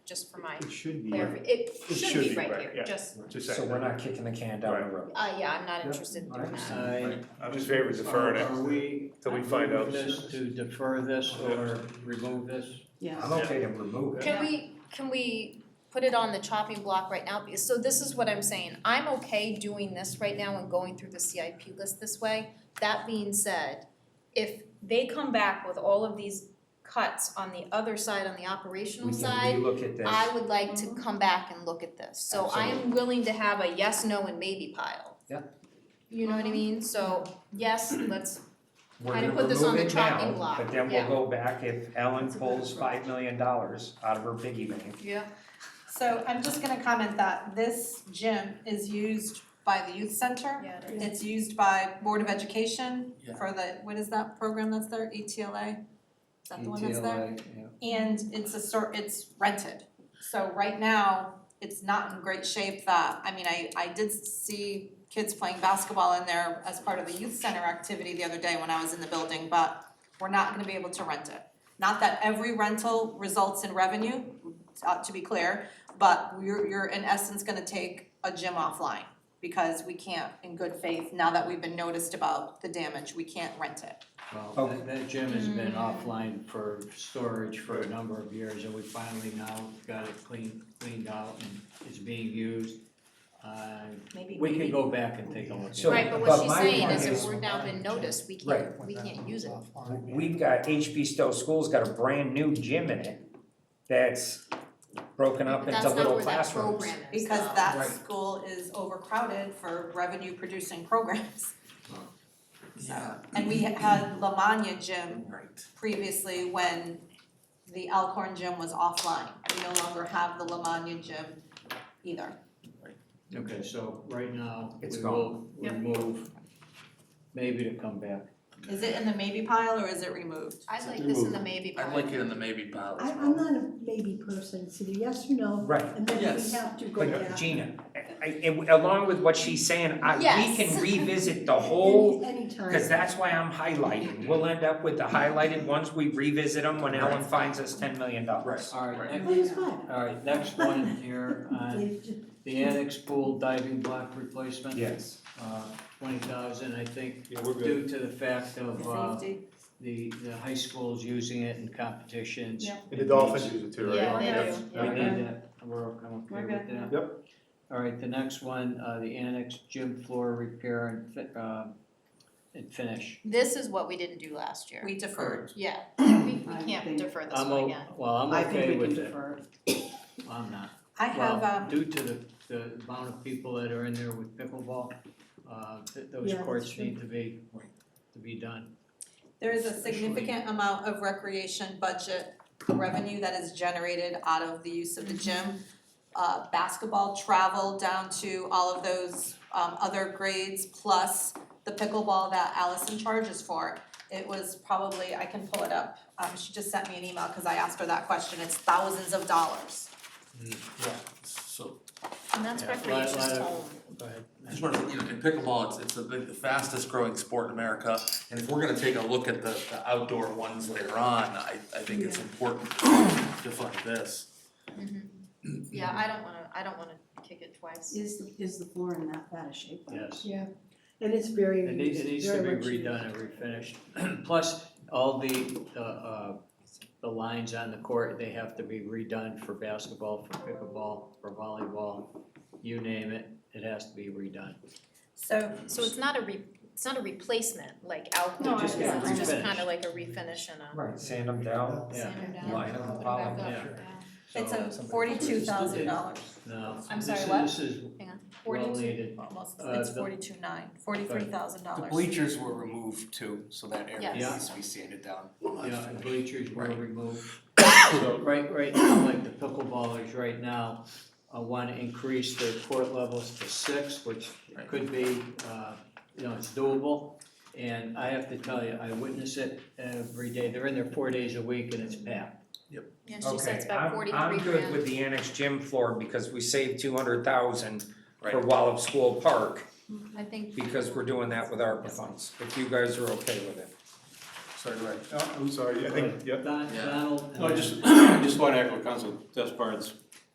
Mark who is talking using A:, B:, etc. A: just for my,
B: It should be,
A: clarif- it should be right here,
C: yeah.
A: just,
C: Just
D: So
C: saying.
D: we're not kicking the can down the road.
A: uh, yeah, I'm not
B: Yeah.
A: interested in doing that.
E: I,
C: I'm just favor
E: are
C: deferring
E: are
C: it
E: we
C: till we find out.
E: moving this to defer this or remove this?
D: I'm okay to remove it.
A: Can we, can we put it on the chopping block right now? Because- So this is what I'm saying, I'm okay doing this right now and going through the CIP list this way. That being said, if they come back with all of these cuts on the other side, on the operational
D: We
A: side,
D: can relook at this.
A: I would like to come back and look at this. So I am willing to have a yes, no, and maybe pile.
D: Yeah.
A: You know what I mean? So yes, let's,
D: We're
A: kinda
D: gonna
A: put this
D: remove
A: on the
D: it now,
A: chopping block,
D: but then
A: yeah.
D: we'll go back if Ellen pulls five million dollars out of her piggy bank.
A: yeah,
F: So I'm just gonna comment that this gym is used by the youth center.
A: yeah, it is.
F: It's used by Board of Education
E: Yeah.
F: for the, what is that program that's there, ETLA? Is that the one
E: E
F: that's there? And it's a sort, it's rented. So right now, it's not in great shape that, I mean, I I did see kids playing basketball in there as part of a youth center activity the other day when I was in the building, but we're not gonna be able to rent it. Not that every rental results in revenue, uh to be clear, but you're you're in essence gonna take a gym offline because we can't in good faith, now that we've been noticed about the damage, we can't rent it.
D: Oh.
E: Well, that, that gym has been offline for storage for a number of years, and we finally now got it cleaned, cleaned out and is being used. Uh,
F: Maybe
E: we can go back and take a look. at
D: So-
E: it.
A: Right, but what
D: but
A: she's
D: my
A: saying
D: point
A: is
D: is-
A: if we're now been noticed, we can't, we can't use it.
D: We've got, HB Stowe School's got a brand new gym in it that's broken up into little
A: But that's not where that
D: classrooms.
A: program is
F: Because
A: though.
F: that
E: Right.
F: school is overcrowded for revenue producing programs. So, and we had Lamagna Gym previously when the Alcorn Gym was offline. We no longer have the Lamagna Gym either.
E: Okay, so right now, we
D: It's
E: will
A: Yep.
E: remove, maybe to come back.
F: Is it in the maybe pile or is it removed?
A: I like this in the maybe part.
G: I'd like it in the maybe pile as
H: I,
G: well.
H: I'm not a maybe person, it's either yes or no,
D: Right,
H: and then
G: Yes.
H: we have to go
D: but
H: back.
D: Gina, I, I- along with what she's saying, I, we can
A: Yes.
D: revisit the whole
H: Any, anytime.
D: Cause that's why I'm highlighting, we'll end up with the highlighted ones, we revisit them when Ellen finds us ten million dollars.
E: All right,
H: But it's
E: next,
H: fine.
E: all right, next one here, uh,
H: They just-
E: the annex pool diving block replacement.
D: Yes.
E: Uh, twenty thousand, I think,
C: Yeah, we're good.
E: due to the fact of, uh,
F: Safety.
E: the, the high schools using it in competitions.
F: Yeah.
C: And the Dolphins use it too, right?
A: Yeah, they
C: That's-
A: do.
E: We
C: yeah.
E: need that, we're, I'm okay
F: We're
E: with
F: good.
E: that.
C: Yep.
E: All right, the next one, uh, the annex gym floor repair and fi- uh, and finish.
A: This is what we didn't do last year.
F: We deferred.
A: Yeah, we, we
I: I
A: can't
I: think-
A: defer this
E: I'm
A: one
E: o-
A: again.
E: well, I'm
I: I
E: okay
I: think we
E: with
I: can
E: it,
I: defer.
E: I'm not.
F: I have,
E: Well,
F: um,
E: due to the, the amount of people that are in there with pickleball, uh, th- those
H: Yeah, that's
E: courts
H: true.
E: need to be, to be done.
F: there is a significant amount of recreation budget revenue that is generated out of the use of the gym. Uh, basketball, travel down to all of those, um, other grades, plus the pickleball that Allison charges for. It was probably, I can pull it up, um, she just sent me an email, cause I asked her that question, it's thousands of dollars.
E: Mm.
G: So,
A: And that's
E: Yeah, li-
A: recreation's
E: li-
A: home.
E: Go ahead.
G: just wanted to, you know, in pickleball, it's, it's the, the fastest growing sport in America. And if we're gonna take a look at the, the outdoor ones later on, I, I think it's important to fund this.
A: Mm-hmm. Yeah, I don't wanna, I don't wanna kick it twice.
I: Is, the- is the floor in that bad a shape?
E: Yes.
H: And it's very,
E: It needs, it needs to be
H: very much
E: redone and refinished, plus all the, uh, uh, the lines on the court, they have to be redone for basketball, for pickleball, for volleyball, you name it, it has to be redone.
F: So
A: So it's not a re, it's not a replacement like
F: No,
A: outdoor,
F: I
A: it's
F: understand.
A: just
E: Refinish.
A: kinda like a refinish and a
D: Right, sand them down,
E: Yeah.
A: sand them down,
D: Line
A: put them
D: up the
A: back
D: bottom,
A: up.
D: yeah.
F: it's
E: So,
F: a forty-two thousand dollars,
E: no,
F: I'm
E: this
F: sorry,
E: is,
F: what?
E: this is
F: forty-two.
E: well needed,
F: Almost,
E: Uh,
F: it's
E: the-
F: forty-two nine, forty-three thousand dollars.
J: bleachers were removed too, so that area
A: Yes.
J: needs to be sanded down.
E: yeah, and bleachers were
G: Right.
E: removed. So right, right now, like the pickleballers right now, uh, wanna increase their court levels to six, which
G: Right.
E: could be, uh, you know, it's doable. And I have to tell you, I witness it every day, they're in there four days a week and it's packed.
A: And she said
D: Okay,
A: it's about
D: I'm,
A: forty-three
D: I'm
A: grand.
D: good with the annex gym floor because we saved two hundred thousand for
G: Right.
D: Wallop School Park
A: I think.
D: because we're doing that with ARPA funds, if you guys are okay with it.
K: Sorry, go ahead.
G: Oh, I'm sorry, I think, yeah.
E: Don-
K: Yeah.
E: Donald.
G: No, I just, I just want to echo Council Despard's